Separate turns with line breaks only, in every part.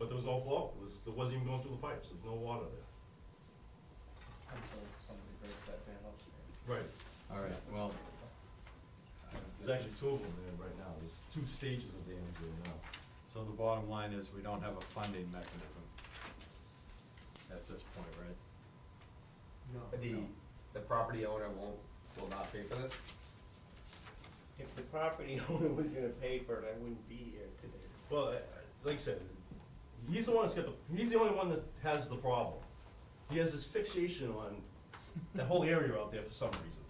no flow, it was, there wasn't even going through the pipes, there's no water there.
Until somebody breaks that dam upstream.
Right,
All right, well. I don't
there's
think
actually two of them there right now, there's two stages of damage there now.
So the bottom line is, we don't have a funding mechanism at this point, right?
The, the property owner won't, will not pay for this?
If the property owner was gonna pay for it, I wouldn't be here today.
Well, I- I- like I said, he's the one that's got the, he's the only one that has the problem. He has this fixation on that whole area out there for some reason.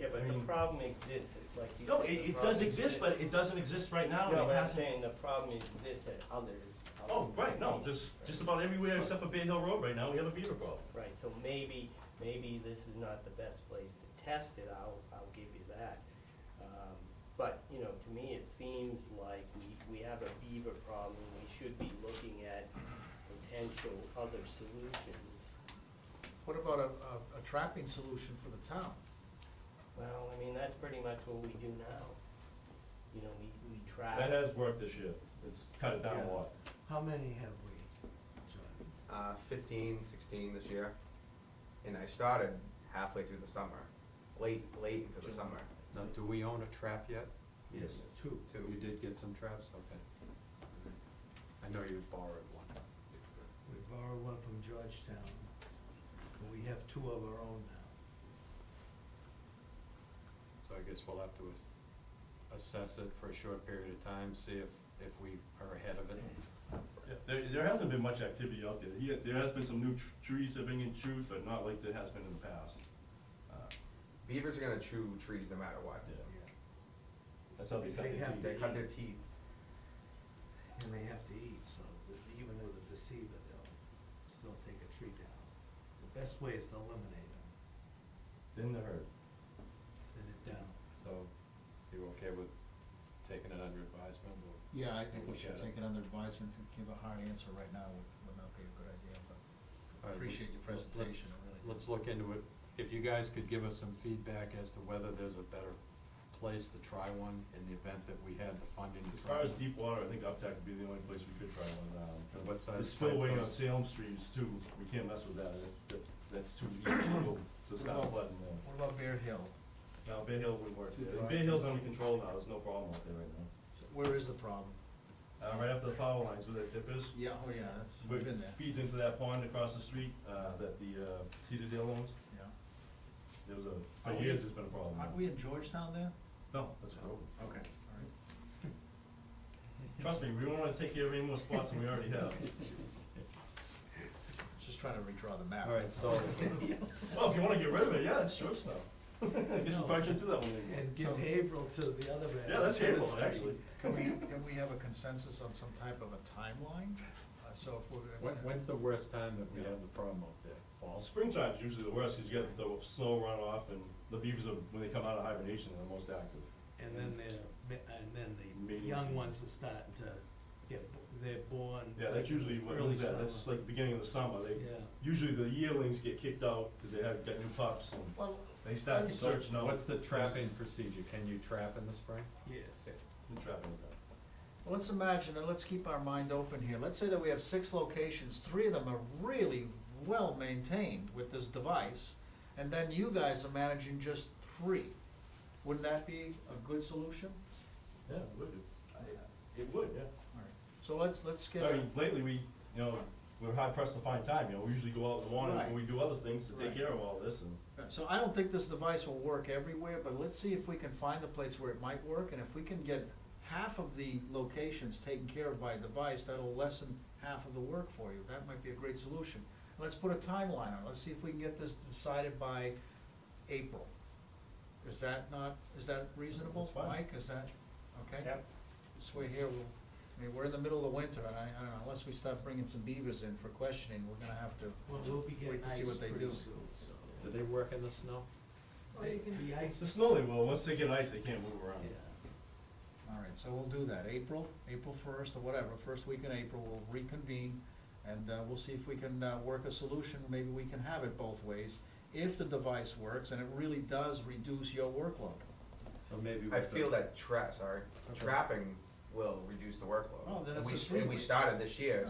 Yeah,
I
but the
mean-
problem exists, it- like you said.
No,
the
it, it does
problem
exist, but it doesn't exist right now,
No,
and
but
it
I'm
hasn't.
saying the problem exists at other. other
Oh, right, no, just,
locations, right?
just about everywhere except for Bay Hill Road right now, we have a beaver problem.
Right, so maybe, maybe this is not the best place to test it, I'll, I'll give you that. Um, But, you know, to me, it seems like we, we have a beaver problem, we should be looking at potential other solutions.
What about a, a- a trapping solution for the town?
Well, I mean, that's pretty much what we do now. You know, we, we try.
That has worked this year, it's cut it down a
Yeah.
lot.
How many have we, John?
Uh, fifteen, sixteen this year, and I started halfway through the summer, late, late into the summer,
Now, do we own a trap yet?
Yes.
Two.
too.
You did get some traps, okay. I know you borrowed one.
We borrowed one from Georgetown, and we have two of our own now.
So I guess we'll have to ass- assess it for a short period of time, see if, if we are ahead of it.
Yeah, There, there hasn't been much activity out there. Yeah, there has been some new tr- trees that have been chewed, but not like there has been in the past. Uh,
Beavers are gonna chew trees no matter what.
yeah,
Yeah,
That's how they
Because
cut
they
their
have
teeth.
They cut their teeth,
and they have to eat, so that even with a deceiver, they'll still take a tree down. The best way is to eliminate them,
Thin the herd.
thin it down.
So you okay with taking it under advisement? We'll-
Yeah, I think we
Look at
should
it.
take it under advisement and give a hard answer right now would, would not be a good idea,
All
but
right,
appreciate your
let- let's-
presentation, I really. do.
Let's look into it. If you guys could give us some feedback as to whether there's a better place to try one in the event that we had the funding. to
As
try
far as
one.
deep water, I think uptack would be the only place we could try one now.
And what size
The spillway on
pipe goes-
Salem Street is too, we can't mess with that, That- that, that's too deep to go to stop flooding there.
What about Bear Hill?
Now, Bay Hill would work
Too
there,
dry.
Bay Hill's under control now, there's no problem out there right now.
Where is the problem?
Uh, right after the power lines where that dip is,
Yeah, oh yeah, that's,
which
we've been there,
feeds into that pond across the street, uh, that the, uh, Cedar Dale owns,
yeah.
there was a,
Are
for
we-
years it's been a problem.
Aren't we in Georgetown there?
No, that's a problem.
Okay, all right.
Trust me, we don't wanna take care of any more spots than we already have.
Just trying to redraw the map.
All right, so
Well, if you wanna get rid of it, yeah, that's your stuff. I guess we probably shouldn't do that one anymore.
And give
So-
Haverhill to the other end.
Yeah, that's
to the
Haverhill,
street.
actually.
Can we, can we have a consensus on some type of a timeline? Uh, so if we're.
when, when's the worst time that we
Yeah.
have the problem up there?
Well, springtime's usually the worst, cause you get the snow runoff and the beavers are, when they come out of hibernation, they're the most active.
And then they're, mi- uh, and then
Meetings
the young
and-
ones are starting to get, bo- they're born.
Yeah,
like
that's
in
usually
the
what,
early
is that, that's
summer.
like beginning of the summer, they,
Yeah.
usually the yearlings get kicked out, cause they have, got new pups and
Well,
they start to
Okay,
So
search, no.
What's the
this
trapping
is-
procedure? Can you trap in the spring?
Yes.
the trapping, okay.
Well, let's imagine, and let's keep our mind open here, let's say that we have six locations, three of them are really well-maintained with this device, and then you guys are managing just three. Wouldn't that be a good solution?
Yeah, it would, I- it would, yeah.
All right. So let's, let's get,
I
a-
mean, lately, we, you know, we're hard pressed to find time, you know, we usually go out in the morning,
Right.
and we do other things to take
Right.
care of all this, and,
so I don't think this device will work everywhere, but let's see if we can find the place where it might work, and if we can get half of the locations taken care of by a device, that'll lessen half of the work for you, that might be a great solution. Let's put a timeline on, it. let's see if we can get this decided by April. Is that not, is that reasonable,
That's fine.
Mike, is that, okay?
Yep.
This way here, we'll, I mean, we're in the middle of winter, and I, I don't know, unless we start bringing some beavers in for questioning, we're gonna have to.
Well, we'll be getting
Wait to see
ice
what they
pretty
do.
soon, so.
Do they work in the snow?
Or Oh, you can-
The
it's
ice.
the snow they will, once they get ice, they can't move around.
Yeah.
All right, so we'll do that, April, April first or whatever, first week in April, we'll reconvene and uh, we'll see if we can uh, work a solution, maybe we can have it both ways, if the device works and it really does reduce your workload.
So maybe with
I
the-
feel that trap, sorry,
Okay.
trapping will reduce the workload.
Well, then
And
it's
we
a
Oh,
s-
three
And we
way.
started this year,
Yeah.